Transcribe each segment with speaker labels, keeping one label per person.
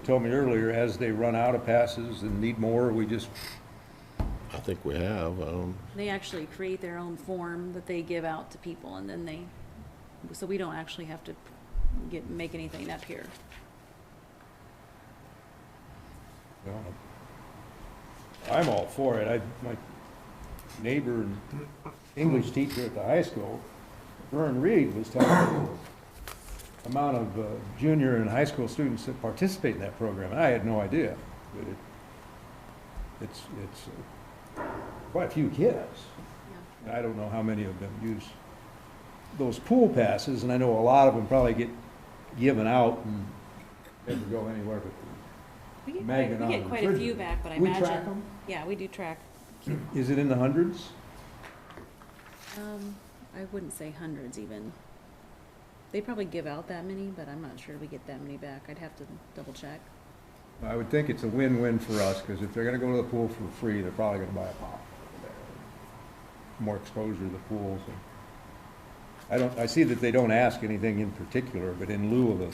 Speaker 1: told me earlier, as they run out of passes and need more, we just,
Speaker 2: I think we have, um,
Speaker 3: They actually create their own form that they give out to people and then they, so we don't actually have to get, make anything up here.
Speaker 1: you know. I'm all for it. I, my neighbor and English teacher at the high school, Vern Reed, was telling me the amount of uh, junior and high school students that participate in that program. And I had no idea. But it, it's, it's uh, quite a few kids. And I don't know how many of them use those pool passes, and I know a lot of them probably get given out and never go anywhere but the
Speaker 3: We get
Speaker 1: Magnet
Speaker 3: quite, we
Speaker 1: on
Speaker 3: get
Speaker 1: the
Speaker 3: quite a few
Speaker 1: refrigerator.
Speaker 3: back, but I
Speaker 1: We
Speaker 3: imagine.
Speaker 1: track 'em?
Speaker 3: Yeah, we do track.
Speaker 1: Is it in the hundreds?
Speaker 3: Um, I wouldn't say hundreds even. They probably give out that many, but I'm not sure we get that many back. I'd have to double check.
Speaker 1: I would think it's a win-win for us, because if they're gonna go to the pool for free, they're probably gonna buy a pop. More exposure to the pools. and- I don't, I see that they don't ask anything in particular, but in lieu of a,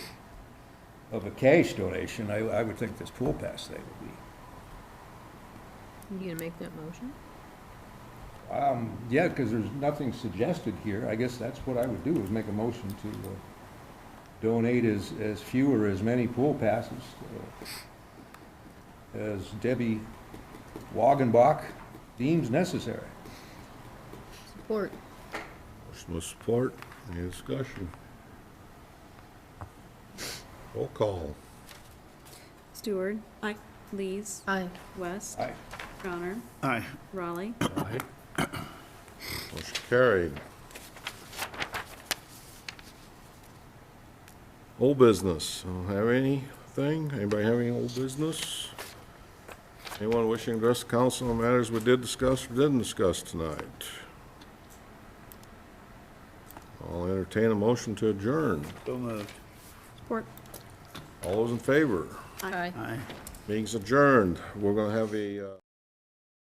Speaker 1: of a cash donation, I, I would think this pool pass thing would be
Speaker 4: You gonna make that motion?
Speaker 1: Um, yeah, because there's nothing suggested here. I guess that's what I would do, is make a motion to uh, donate as, as few or as many pool passes uh, as Debbie Wagenbach deems necessary.
Speaker 4: Support.
Speaker 2: motion with support, any discussion? Roll call.
Speaker 3: Stewart. Aye. Lees.
Speaker 4: Aye.
Speaker 3: West.
Speaker 1: Aye.
Speaker 3: Crowner.
Speaker 5: Aye.
Speaker 3: Raleigh.
Speaker 2: Aye. Motion carried. Old business, I don't have anything, anybody have any old business? Anyone wishing to address the council on matters we did discuss or didn't discuss tonight? I'll entertain a motion to adjourn,
Speaker 5: So moved.
Speaker 4: Support.
Speaker 2: all those in favor,
Speaker 4: Aye.
Speaker 5: Aye.
Speaker 2: meeting's adjourned, we're gonna have a, uh.